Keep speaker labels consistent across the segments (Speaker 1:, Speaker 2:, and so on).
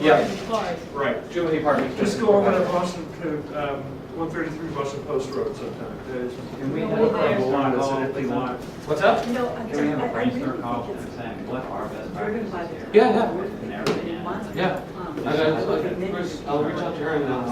Speaker 1: Yeah.
Speaker 2: parking cars.
Speaker 3: Right.
Speaker 1: Jubilee Apartments.
Speaker 3: Just go over to Boston, to, um, 133 Boston Post Road sometime. There's-
Speaker 4: Can we
Speaker 2: No,
Speaker 4: have
Speaker 2: we
Speaker 4: a
Speaker 2: there.
Speaker 4: brainstorm
Speaker 3: Lot, it's
Speaker 4: call
Speaker 3: an empty
Speaker 4: with
Speaker 3: lot.
Speaker 4: them?
Speaker 1: What's up?
Speaker 2: No, I I- I
Speaker 4: Can we have a
Speaker 2: really think
Speaker 4: brainstorm call with
Speaker 2: it's
Speaker 4: them saying what are best
Speaker 2: driven by
Speaker 4: practices
Speaker 2: the.
Speaker 4: here?
Speaker 1: Yeah, yeah.
Speaker 4: And everything else.
Speaker 1: Yeah.
Speaker 5: Um,
Speaker 1: I gotta look at- Bruce, I'll reach out to her and then I'll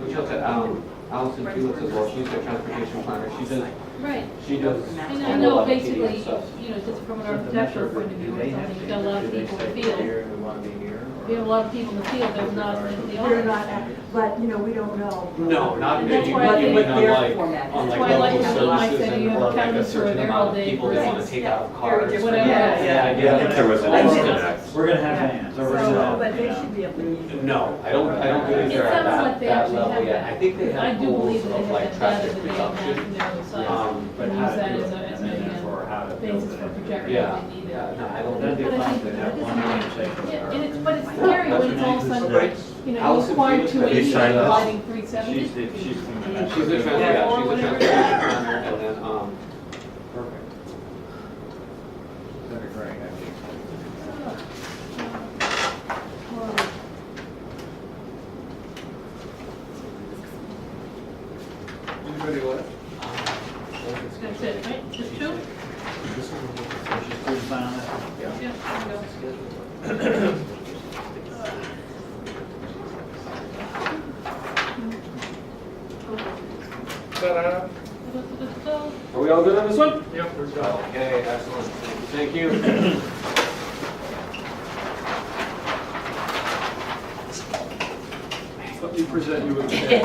Speaker 1: reach out to um, Allison Felix as well. She's their transportation planner. She does,
Speaker 2: Right,
Speaker 1: she does.
Speaker 2: and
Speaker 1: a
Speaker 2: I
Speaker 1: whole
Speaker 2: know
Speaker 1: lot of
Speaker 2: basically,
Speaker 1: PDF stuff.
Speaker 2: you know, just from an
Speaker 4: So if the
Speaker 2: architectural
Speaker 4: Metro
Speaker 2: point of view,
Speaker 4: Group, do
Speaker 2: or
Speaker 4: they have
Speaker 2: something, you've got a lot of
Speaker 4: to- do they
Speaker 2: people in the
Speaker 4: say
Speaker 2: field.
Speaker 4: Here, we want to be here. or-
Speaker 2: We have a lot of people in the field, there's not as many
Speaker 5: They're
Speaker 2: owners.
Speaker 5: not, act- but, you know, we don't know.
Speaker 1: No, not, you
Speaker 2: That's
Speaker 1: you
Speaker 2: why I think
Speaker 1: mean on
Speaker 5: their
Speaker 1: like,
Speaker 5: format-
Speaker 1: on
Speaker 2: That's
Speaker 1: like
Speaker 2: why I like
Speaker 1: local
Speaker 2: to do my
Speaker 1: services
Speaker 2: setting
Speaker 1: and
Speaker 2: up
Speaker 1: or like a
Speaker 2: cabins for
Speaker 1: certain
Speaker 2: there all
Speaker 1: amount of
Speaker 2: day
Speaker 1: people
Speaker 2: for
Speaker 1: that
Speaker 2: that.
Speaker 1: want to take out
Speaker 5: Yeah, very
Speaker 1: cars.
Speaker 5: different.
Speaker 1: whatever.
Speaker 2: Yeah,
Speaker 5: yeah.
Speaker 1: Yeah,
Speaker 6: I think there was an
Speaker 5: I did.
Speaker 6: disconnect.
Speaker 4: We're gonna have hands, or we're gonna
Speaker 5: So,
Speaker 4: have,
Speaker 5: but
Speaker 4: you
Speaker 5: they
Speaker 4: know.
Speaker 5: should be able to.
Speaker 1: No, I don't, I
Speaker 2: It
Speaker 1: don't believe they're
Speaker 2: sounds
Speaker 1: at
Speaker 2: like
Speaker 1: that,
Speaker 2: they
Speaker 1: that
Speaker 2: actually
Speaker 1: level
Speaker 2: have
Speaker 1: yet.
Speaker 2: that.
Speaker 1: I think they
Speaker 2: I
Speaker 1: have
Speaker 2: do believe
Speaker 1: goals
Speaker 2: that they
Speaker 1: of
Speaker 2: have
Speaker 1: like
Speaker 2: that data
Speaker 1: traffic
Speaker 2: that they have that
Speaker 1: reduction.
Speaker 2: in their own size.
Speaker 1: Um,
Speaker 4: But
Speaker 2: Use
Speaker 4: how to
Speaker 2: that
Speaker 4: do
Speaker 2: as
Speaker 4: it,
Speaker 2: a- as
Speaker 4: and then
Speaker 2: a,
Speaker 4: therefore how to build
Speaker 2: Basis
Speaker 4: it.
Speaker 2: for projecting
Speaker 1: Yeah,
Speaker 2: what they need.
Speaker 1: yeah, no, I
Speaker 4: Well,
Speaker 1: don't.
Speaker 4: That'd be
Speaker 2: But I
Speaker 4: fine
Speaker 2: think-
Speaker 4: to have one conversation with
Speaker 2: Yeah,
Speaker 4: her.
Speaker 2: And it's, but it's scary when it's all sudden,
Speaker 1: Right.
Speaker 2: you know, you
Speaker 1: Allison
Speaker 2: required
Speaker 1: Felix, have
Speaker 2: two
Speaker 1: you
Speaker 2: eighty,
Speaker 6: signed up?
Speaker 2: lighting three seventy.
Speaker 4: She's the, she's the.
Speaker 1: She's a trans, yeah, she's a transportation planner and then, um, perfect.
Speaker 4: That'd be great, I
Speaker 2: Oh.
Speaker 4: think.
Speaker 3: Anybody left?
Speaker 2: That's it, right? Just two?
Speaker 4: She's pretty fine.
Speaker 2: Yeah. there you go.
Speaker 3: Ta-da.
Speaker 2: Da-da-da-da-da.
Speaker 1: Are we all good on this one?
Speaker 3: Yep, we're done.
Speaker 1: Okay, excellent. Thank you.
Speaker 3: Let me present you with a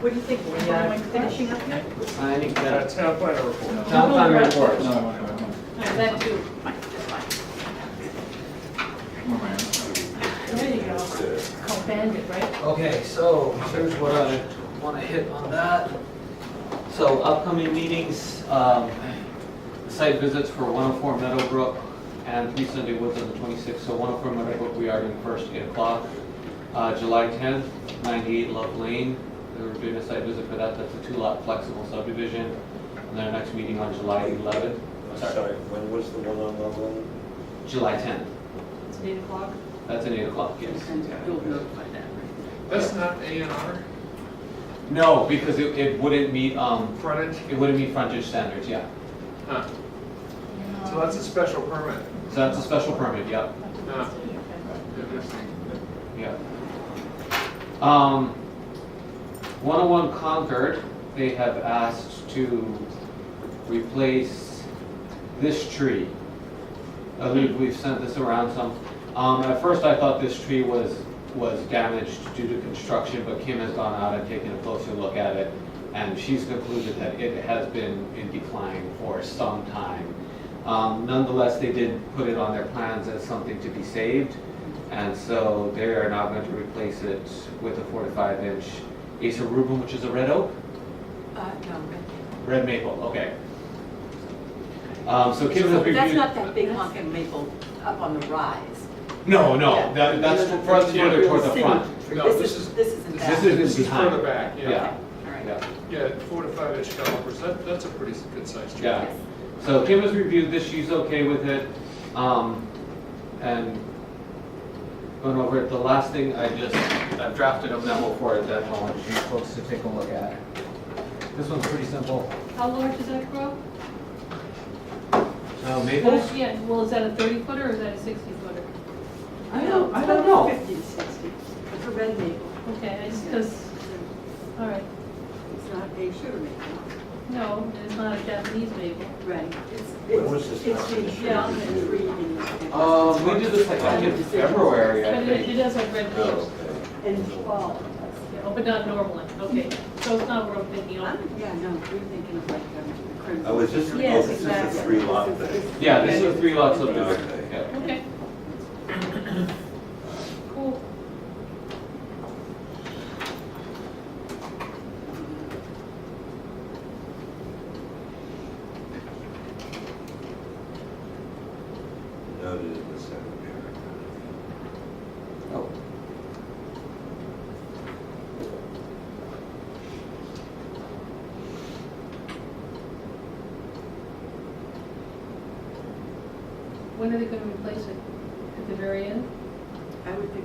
Speaker 5: What do you think, Lynn? Am I finishing up here?
Speaker 1: The signing,
Speaker 3: a
Speaker 1: that's,
Speaker 3: town planner report.
Speaker 1: town planner report.
Speaker 4: No, I want to, I want to.
Speaker 2: All right, that too.
Speaker 4: Come on, man.
Speaker 2: There you go. It's called Bandit, right?
Speaker 1: Okay, so here's what I want to hit on that. So upcoming meetings, um, site visits for 104 Meadowbrook and 3 Sunday Woods on the 26th. So 104 Meadowbrook, we are doing first 8 o'clock. Uh, July 10th, 98 Love Lane, we're doing a site visit for that. That's a two-lot flexible subdivision. And then our next meeting on July 11th, sorry,
Speaker 6: Sorry, when was the one on Loveland?
Speaker 1: July 10th.
Speaker 2: It's eight o'clock.
Speaker 1: That's at 8 o'clock, yes.
Speaker 5: You'll notify that, right?
Speaker 3: That's not A and R
Speaker 1: No, because it it wouldn't meet, um,
Speaker 3: frontage?
Speaker 1: it wouldn't meet frontage standards, yeah.
Speaker 3: Huh. So that's a special permit.
Speaker 1: So that's a special permit, yep,
Speaker 2: Uh,
Speaker 3: No.
Speaker 1: yep. Um, 101 Concord, they have asked to replace this tree. I believe we've sent this around some. Um, at first I thought this tree was, was damaged due to construction, but Kim has gone out and taken a closer look at it. And she's concluded that it has been in decline for some time. Um, nonetheless, they did put it on their plans as something to be saved. And so they are now going to replace it with a four to five inch Acer Rubin, which is a red oak,
Speaker 5: Uh, no.
Speaker 1: red maple, okay. Um, so Kim has reviewed.
Speaker 5: That's not that big hunk of maple up on the rise.
Speaker 1: No,
Speaker 5: Yeah.
Speaker 1: no, that, that's fr- further toward the
Speaker 5: Sitting-
Speaker 1: front.
Speaker 3: No, this
Speaker 5: This
Speaker 3: is-
Speaker 5: is, this isn't
Speaker 1: this
Speaker 5: that.
Speaker 1: is-
Speaker 3: This is
Speaker 1: behind.
Speaker 3: further back, yeah.
Speaker 1: Yeah.
Speaker 5: All right.
Speaker 1: Yeah,
Speaker 3: Yeah, four to five inch calipers, that, that's a pretty good sized tree.
Speaker 1: yeah. So Kim has reviewed this, she's okay with it. Um, and going over it, the last thing I just, I've drafted a memo for it that I want you folks to take a look at. This one's pretty simple.
Speaker 2: How large does that grow?
Speaker 1: Uh, maples?
Speaker 2: Yeah, well, is that a thirty footer or is that a sixty footer?
Speaker 1: I don't, I don't know.
Speaker 5: Fifty to sixty. It's a red maple.
Speaker 2: Okay, it's just, all right.
Speaker 5: It's not a sugar maple.
Speaker 2: No, it's not a Japanese maple.
Speaker 5: Right. It's-
Speaker 6: When was this
Speaker 5: It's
Speaker 6: done?
Speaker 5: been down and three and.
Speaker 1: Um, we did this like back in February, I
Speaker 2: But it it
Speaker 1: think.
Speaker 2: does have red leaves.
Speaker 5: And twelve.
Speaker 2: Yeah, Oh, but not normally, okay. So it's not worth thinking
Speaker 5: I'm,
Speaker 2: of.
Speaker 5: yeah, no, we're thinking of like um, the crimson.
Speaker 6: Oh, is this- oh,
Speaker 5: Yes,
Speaker 6: this is a
Speaker 5: exactly.
Speaker 6: three-lot
Speaker 5: This is-
Speaker 6: thing.
Speaker 1: Yeah, this is a three lots of
Speaker 6: Okay.
Speaker 1: yeah.
Speaker 2: Okay. Cool.
Speaker 6: Noted in the second paragraph.
Speaker 1: Oh.
Speaker 2: When are they gonna replace it? At the very end?
Speaker 5: I I would think